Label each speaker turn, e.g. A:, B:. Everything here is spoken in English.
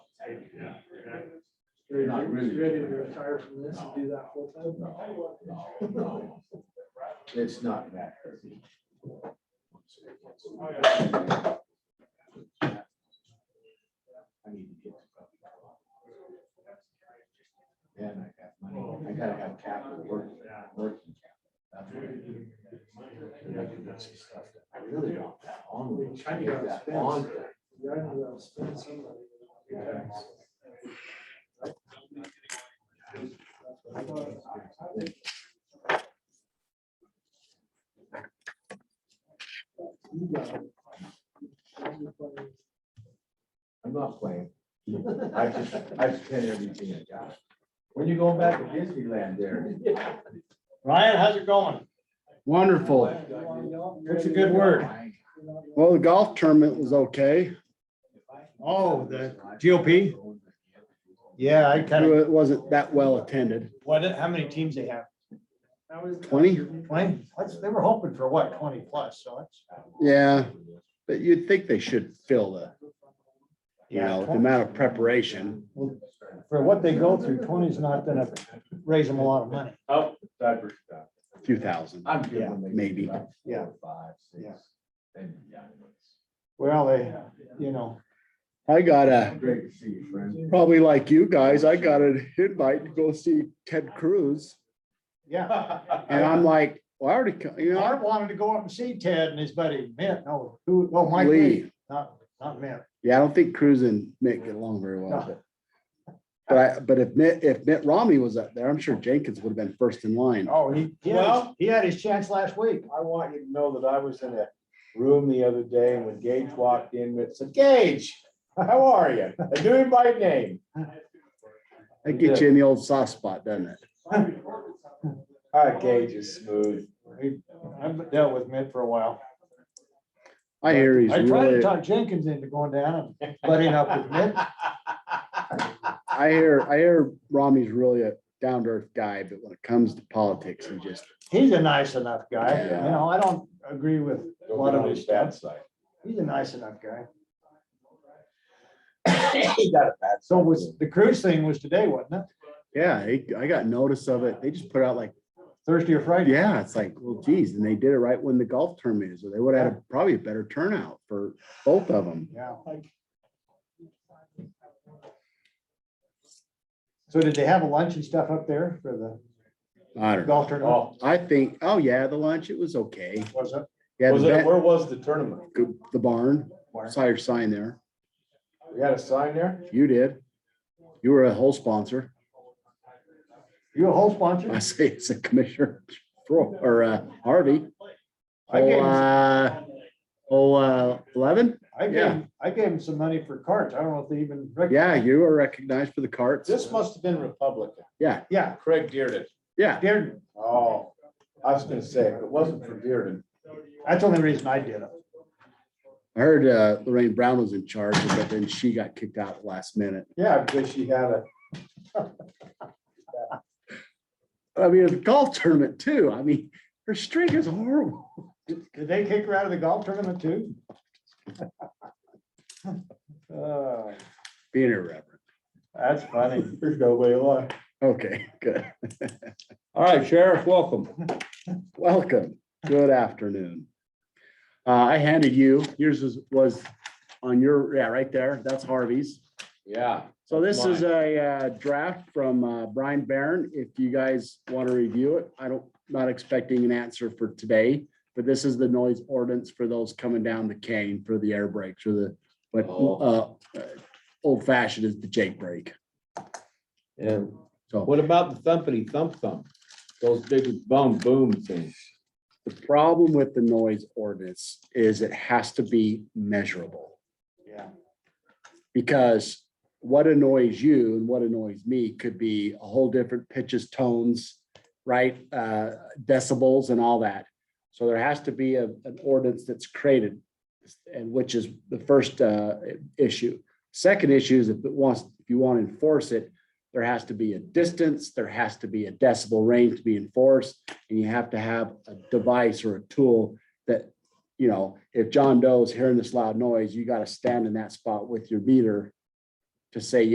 A: not really.
B: Ready to retire from this and do that full time?
A: No, no, no. It's not that. easy. I need to get. And I have money, I gotta have capital work, working capital. That's what I do. And I can do some stuff that I really don't have on me.
B: I need to have
A: That
B: spends.
A: on thing.
B: Yeah, I know that'll spend some money.
A: Yeah.
B: You got it.
A: I'm not playing. I just, I spend everything I got. When you going back to Disneyland there?
C: Ryan, how's it going?
D: Wonderful.
C: That's a good word.
D: Well, the golf tournament was okay.
C: Oh, the GOP? Yeah, I kind of,
D: It wasn't that well attended.
C: what, how many teams they have?
B: That was-
D: 20?
C: Twenty? That's- They were hoping for what, twenty plus, so it's.
D: Yeah, but you'd think they should fill the, you know, the amount of preparation.
C: For what they go through, 20 is not gonna raise them a lot of money.
A: Oh, diaper stuff.
D: Few thousand.
A: I'm good when they. do
D: Maybe.
A: about four,
C: Yeah.
A: Five, six.
C: Yeah.
A: And, yeah, it's-
C: Well, they, you know,
D: I got a,
A: Great to see you, friend.
D: probably like you guys, I got an invite to go see Ted Cruz.
C: yeah.
D: And I'm like, well, I already, co- you know,
C: Art wanted to go up and see Ted and his buddy Mitt, no, who, oh,
D: I
C: Mike Lee,
D: leave.
C: not, not Mitt.
D: Yeah, I don't think Cruz and Mitt get along very well, but. But I, but if Mitt, if Mitt Romney was up there, I'm sure Jenkins would have been first in line.
C: Oh, he, he had, his-
E: Well-
C: he had his chance last week.
E: I want you to know that I was in a room the other day and when Gage walked in, it said, Gage, how are you? I knew him by name.
D: That gets you in the old soft spot, doesn't it?
E: Ah, Gage is smooth.
C: He- I've dealt with Mitt for a while.
D: I hear he's
C: I tried to
D: really,
C: talk Jenkins into going down and butting up with Mitt.
D: I hear, I hear Romney's really a down to earth guy, but when it comes to politics, he just,
C: He's a nice enough guy, you
D: Yeah.
C: know, I don't agree with a lot of his
E: bad
C: stuff.
E: side.
C: He's a nice enough guy.
E: He got a bad
C: So
E: side.
C: was, the cruise thing was today, wasn't it?
D: yeah, he- I got notice of it. They just put out like,
C: Thursday or Friday?
D: yeah, it's like, well, geez, and they did it right when the golf tournament is, or they would have had a- probably a better turnout for both of them.
C: Yeah. So did they have a lunch and stuff up there for
D: I
C: the
D: don't know.
C: golf tournament?
E: Oh,
D: I think, oh yeah, the lunch, it was okay.
C: Was it?
D: Yeah,
E: was
D: the
E: it,
D: vet-
E: where was the tournament?
D: the barn,
C: Barn.
D: saw your sign there.
E: We had a sign there?
D: You did. You were a whole sponsor.
C: You a whole
D: I
C: sponsor?
D: say it's a commissioner Fro- or uh, Harvey.
C: I gave
D: Oh,
C: him-
D: uh, oh, uh, eleven?
C: I gave,
D: yeah.
C: him- I gave him some money for carts. I don't know if they even. rec-
D: Yeah, you were recognized for the carts.
E: This must have been Republican.
C: Yeah,
E: Craig Dearden.
D: Yeah,
C: Darren,
E: Oh, I was gonna say, if it wasn't for Dearden,
C: that's the only reason I did it.
D: I heard uh, Lorraine Brown was in charge, but then she got kicked out at the last minute.
E: yeah, because she had a,
D: I mean, the golf tournament too. I mean, her streak is horrible.
C: Did did they kick her out of the golf tournament too? Uh,
D: Being irreverent.
C: That's funny.
E: there's no way alive.
D: Okay, good.
A: All right, Sheriff, welcome.
D: Welcome. Good afternoon. Uh, I handed you, yours was, was on your, yeah, right there. That's Harvey's.
A: Yeah.
D: So this is a uh, draft from uh, Brian Barron. If you guys want to review it, I don't, not expecting an answer for today. But this is the noise ordinance for those coming down the cane for the air brakes or the, what
A: Oh.
D: uh, uh, old fashioned is the Jake brake.
A: And
D: So-
A: what about the thumpity thump thump? Those big boom boom things.
D: The problem with the noise ordinance is it has to be measurable.
C: Yeah.
D: because what annoys you and what annoys me could be a whole different pitches, tones, right? Uh, decibels and all that. So there has to be a, an ordinance that's created and which is the first, uh, issue. Second issue is if it wants, if you want to enforce it, there has to be a distance, there has to be a decibel range to be enforced. And you have to have a device or a tool that you know, if John Doe's hearing this loud noise, you gotta stand in that spot with your meter to say